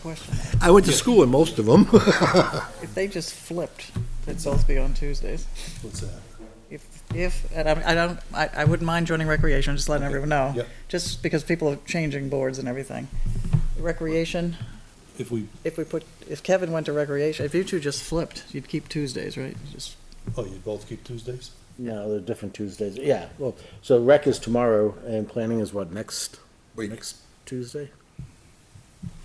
question. I went to school in most of them. If they just flipped, it'd always be on Tuesdays. What's that? If, if, and I, I don't, I, I wouldn't mind joining recreation, just letting everyone know. Yep. Just because people are changing boards and everything. Recreation, If we, if we put, if Kevin went to recreation, if you two just flipped, you'd keep Tuesdays, right? Just, oh, you both keep Tuesdays? No, they're different Tuesdays. Yeah, well, so rec is tomorrow and planning is what, next? Week. Next Tuesday?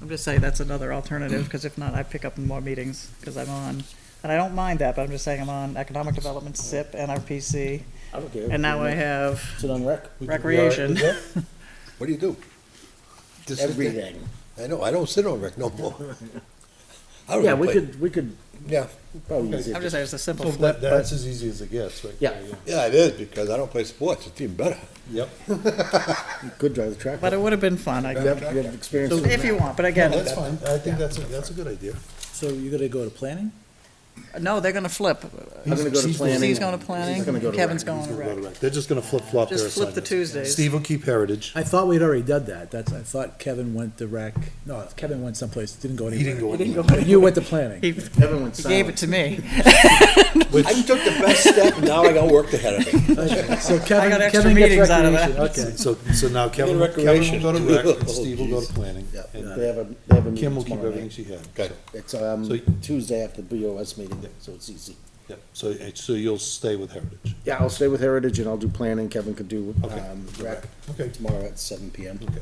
I'm just saying that's another alternative, because if not, I pick up more meetings, because I'm on. And I don't mind that, but I'm just saying I'm on economic development, SIP, NRPC, I don't care. and now I have Sit on rec. recreation. What do you do? This is the- Everything. I know, I don't sit on rec no more. I Oh, don't Yeah, we play- could, we could Yeah, probably use I'm it. just saying it's a simple So flip. that, that's as easy as it gets, right? Yeah. there, yeah, it is, because I don't play sports, it's even better. Yep. Could drive the track. But it would have been fun, I You have, you have experience. in if you want, but again, That's fine. I think that's, a that's a good idea. So you're gonna go to planning? no, they're gonna flip. I'm gonna go to planning. He's going to He's gonna go planning, to Kevin's rec. going to We'll go to rec. rec. They're just gonna flip flop their Just assignments. flip the Tuesdays. Steve will keep Heritage. I thought we'd already done that. That's, I thought Kevin went to rec. No, Kevin went someplace, didn't go He didn't anywhere. go anywhere. You went to planning. He Kevin went he gave it silent. to me. I took the best step, now I got work ahead of me. Okay, So I Kevin, got extra Kevin gets meetings out of recreation. that. Okay. So, so now Kevin, Kevin recreation. will go to rec, and Oh, Steve will go to planning. Yeah. and They have a, they have a Kim meeting will keep tomorrow everything night. she had. Okay. It's, So- um, Tuesday after the BOS meeting, so it's easy. Yep. So, so you'll stay with Heritage. Yeah, I'll stay with Heritage and I'll do planning. Kevin could do, Okay. um, rec Okay. tomorrow at seven PM. Okay.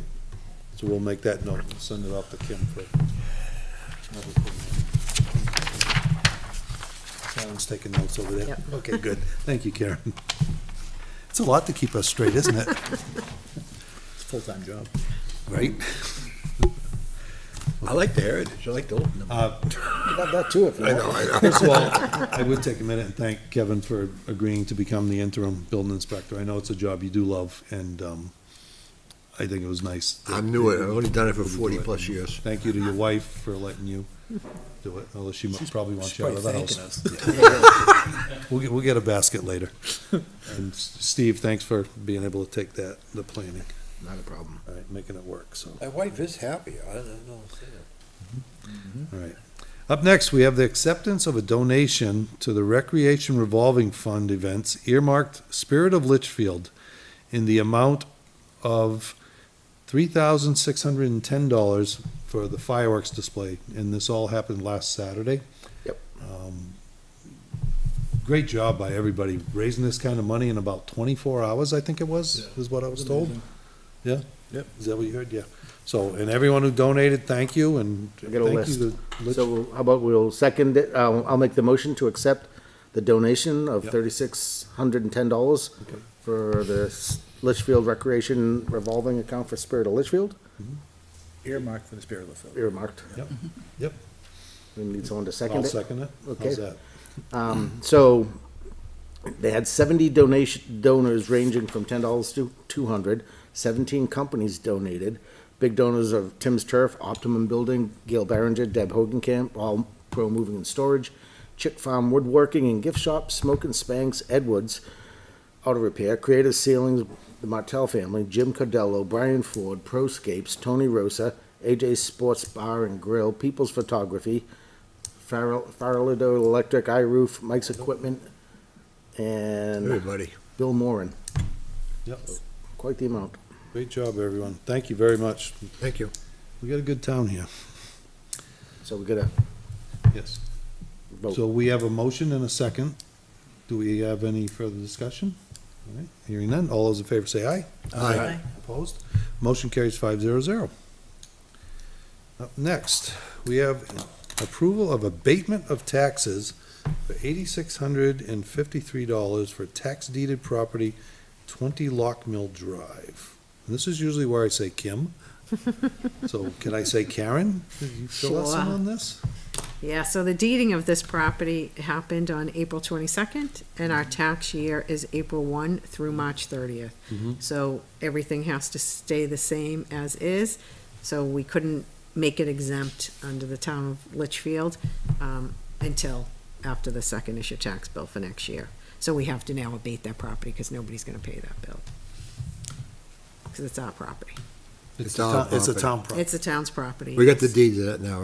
So we'll make that note and send it off to Kim for. Karen's taking notes over there. Okay, good. Thank you, Karen. It's a lot to keep us straight, isn't it? It's a full-time job. Right? I like the heritage, I like to open them. About that too, if you want. First of all, I would take a minute and thank Kevin for agreeing to become the interim building inspector. I know it's a job you do love, and um, I think it was nice. that- I'm new at it. I've only done it for that you do 40 plus years. Thank you to your wife for letting you do it, although she mu- probably wants you out of the Probably house. thanking us. We'll get, we'll get a basket later. And S- Steve, thanks for being able to take that, the planning, Not a problem. all right, making it work, so, My wife is happy, I don't know. all right. Up next, we have the acceptance of a donation to the Recreation Revolving Fund events earmarked Spirit of Litchfield in the amount of three thousand six hundred and ten dollars for the fireworks display, and this all happened last Saturday. Yep. Um, Great job by everybody raising this kind of money in about twenty-four hours, I think it was, is what I was told. Yeah? Yep. Is that what you heard? Yeah. So, and everyone who donated, thank you, and I thank got a you to list. Litch- So we'll- how about we'll second it, I'll, I'll make the motion to accept the donation of Yep. thirty-six hundred and ten dollars for the S- Litchfield Recreation Revolving Account for Spirit of Litchfield, Earmarked for the spirit of the film. earmarked. Yep, yep. We need someone to I'll Mm-hmm. second it. second it. How's Okay. that? Um, So they had seventy donation, donors ranging from ten dollars to two hundred. Seventeen companies donated. Big donors of Tim's Turf, Optimum Building, Gail Barringer, Deb Hogenkamp, All Pro Moving and Storage, Chick Farm Woodworking and Gift Shop, Smoke and Spanks, Edwards Auto Repair, Creative Ceilings, the Martell Family, Jim Cardello, Brian Ford, Proscapes, Tony Rosa, AJ Sports Bar and Grill, People's Photography, Farrell, Farrelado Electric, iRoof, Mike's Equipment, and Everybody. Bill Moran. Yep. Quite the amount. Great job, everyone. Thank you very much. Thank you. We got a good town here. So we gotta Yes. So vote. we have a motion and a second. Do we have any further discussion? All right, Hearing none. All those in favor say aye. Aye. Opposed? Motion carries five zero zero. Up next, we have approval of abatement of taxes for eighty-six hundred and fifty-three dollars for tax deeded property, twenty Lock Mill Drive. And this is usually where I say Kim. So can I say Karen? Did you fill us in Sure. on this? Yeah, so the deeding of this property happened on April twenty-second, and our tax year is April one through March thirtieth. So everything has to stay the same as is, so we couldn't make it exempt under the town of Litchfield, um, until after the second issue tax bill for next year. So we have to now abate that property, because nobody's gonna pay that bill. Because it's our property. It's our a town- It's a property. town property. It's the town's property. We got the yes. deed to that now,